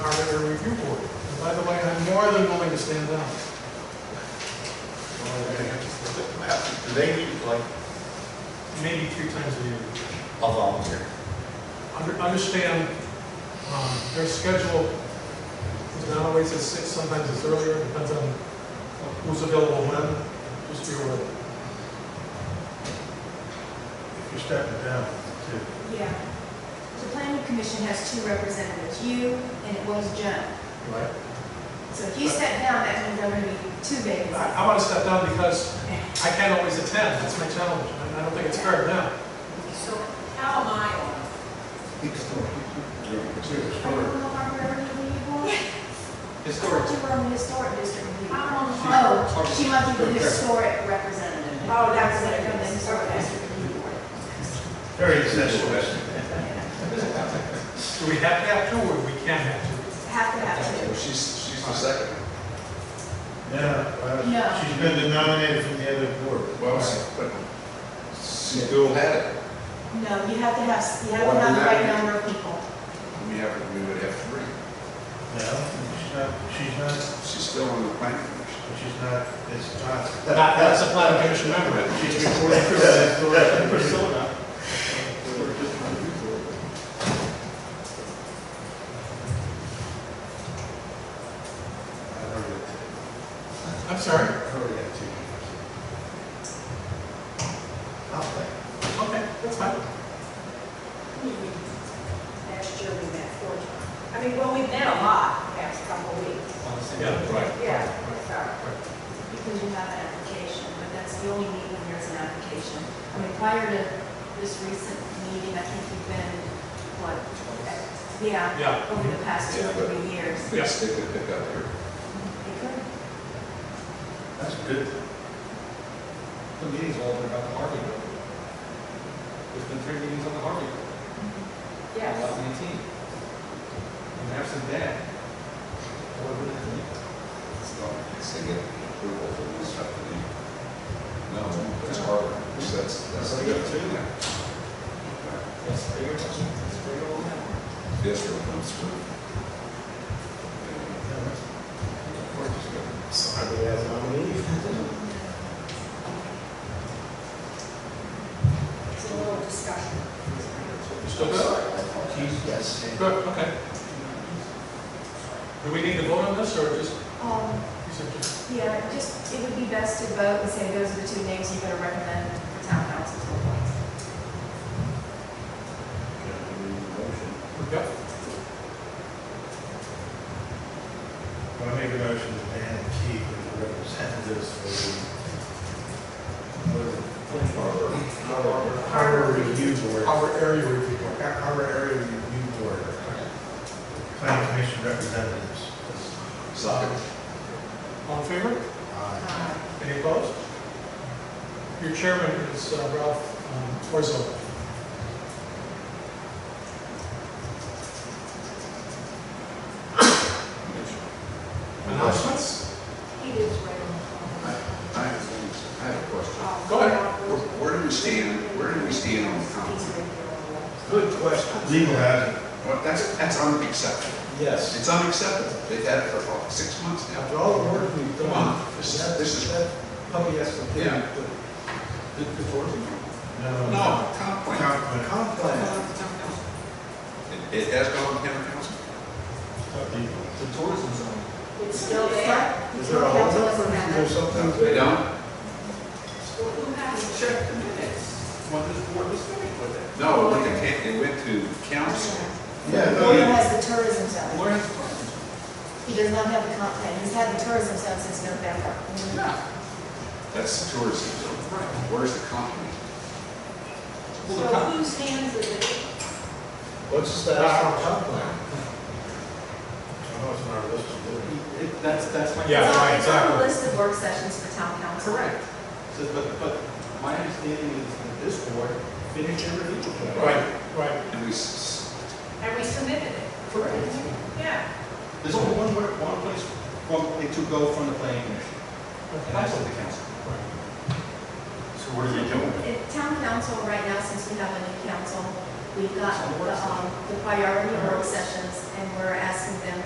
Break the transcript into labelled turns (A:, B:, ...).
A: I'm more than willing to stand down.
B: Do they need, like,
A: Maybe three times a year.
B: a volunteer?
A: Under- Understand, um, their schedule is not always at six, sometimes it's earlier, depends on who's available when, just be aware.
C: If you're stepping down, too.
D: Yeah. The planning commission has two representatives, you and it was Joe.
C: Right.
D: So if you step down, that means there are going to be two vacancies.
A: I, I wanna step down because
D: Okay.
A: I can't always attend, that's my challenge, and I don't think it's fair now.
E: So how am I on?
D: I don't know if I'm ever going to be one.
F: Historic.
D: You were on the historic district. review.
E: I'm on the.
D: Oh, she must be the historic representative.
E: Oh, that's what it
D: From the
E: is.
D: historic
E: Okay.
D: district. review board.
C: Very accessible.
A: Do we have to have two, or we can have
D: Have to have two.
B: She's, she's the second.
C: Yeah,
D: No.
C: well, she's been denominated from the other board.
B: Well, s- but she still had it.
D: No, you have to have, you have
B: Why
D: to have the
B: not?
D: right number of people.
B: We have, we would have three.
C: No, she's not, she's not,
B: She's still on the planning commission.
C: she's not, it's not.
A: two? That- That's a planning commission member.
C: She's reporting to the authority.
A: Persona.
C: I heard it.
A: I'm sorry.
C: I heard that too. I'll play.
A: Okay, that's fine.
E: Last year we met four times. I mean, well, we've met a lot the past couple of weeks.
A: Yeah, right.
E: Yeah. Sorry.
D: Because you have an application, but that's the only meeting when there's an application. I mean, prior to this recent meeting, I think you've been, what? Yeah.
A: Yeah.
D: Over the past two or three years.
A: Yeah.
B: They could pick up here.
C: That's good.
F: The meeting's all been about the Harvey Road. There's been three meetings on the Harvey Road.
E: Yes.
F: 2018. And absent that, what would it be?
B: It's not, it's to get approval for this stuff. they need. No, it's harder. So That's, that's.
F: So we got two now. That's pretty much, that's pretty old now.
B: Yes, sir, comes through.
C: Somebody has nominated.
E: It's a little discussion.
A: Still good?
C: Yes.
A: Good, okay. Do we need to vote on this, or just,
D: Um,
A: you said just-
D: yeah, just, it would be best to vote and say those are the two names you're gonna recommend for town council to appoint.
A: yep,
C: Well, I make a motion to Dan and Keith as the representatives for the
B: Harder.
C: Harbor- Harbor Review Board.
A: our area review board?
C: Har- Harbor Area Review Board. Planning Commission representatives.
B: Sorry.
A: All in favor?
C: Aye.
D: Uh,
A: Any opposed? Your chairman is uh, Ralph um, Orzo. Announcements?
E: He is right on.
B: I I have, things- I have a question.
E: Um,
A: Go ahead.
B: Where, where do we stand, where do we stand on the
E: He's
B: comp?
E: right there on
C: Good question. Legal has it.
B: Well, that's, that's unacceptable.
C: Yes.
B: It's unacceptable. They've had it for what, six months now.
C: After all the work we've
B: Come
C: done,
B: on, this is,
C: that,
B: this is,
C: that puppy has to be.
B: Yeah.
F: The, the fourth?
C: No.
B: no, comp plan.
C: Comp- comp plan.
B: It, it has gone to town council.
F: The tourism zone.
E: the- It's still there.
C: Is there a holdup or is there something?
B: They don't?
E: Well, who has it?
F: Check the minutes. What this board was doing with it.
B: No, it went to, ca- it went to council.
C: Yeah, no,
D: William
C: you-
D: has the tourism zone.
F: Where is the tourism?
D: He does not have the comp plan. He's had the tourism zone since November.
B: Yeah. That's the tourism zone. Where's the comp plan?
E: So whose hands is it?
C: what's the status on comp plan? I know it's not listed.
F: It, it- that's, that's my.
A: Yeah. right,
D: It's on the
A: exactly.
D: list of work sessions for town council.
F: Correct. So, but, but my understanding is that this board finished their review. of it.
A: Right, right.
B: And we, s-
E: And we submitted it.
F: Correct.
E: Yeah.
F: There's only one, word- one place, one, it to go from the planning commission. And that's what the council.
B: so what are we doing?
D: In town council, right now, since we have a new council, we've got the, um, the priority work sessions, and we're asking them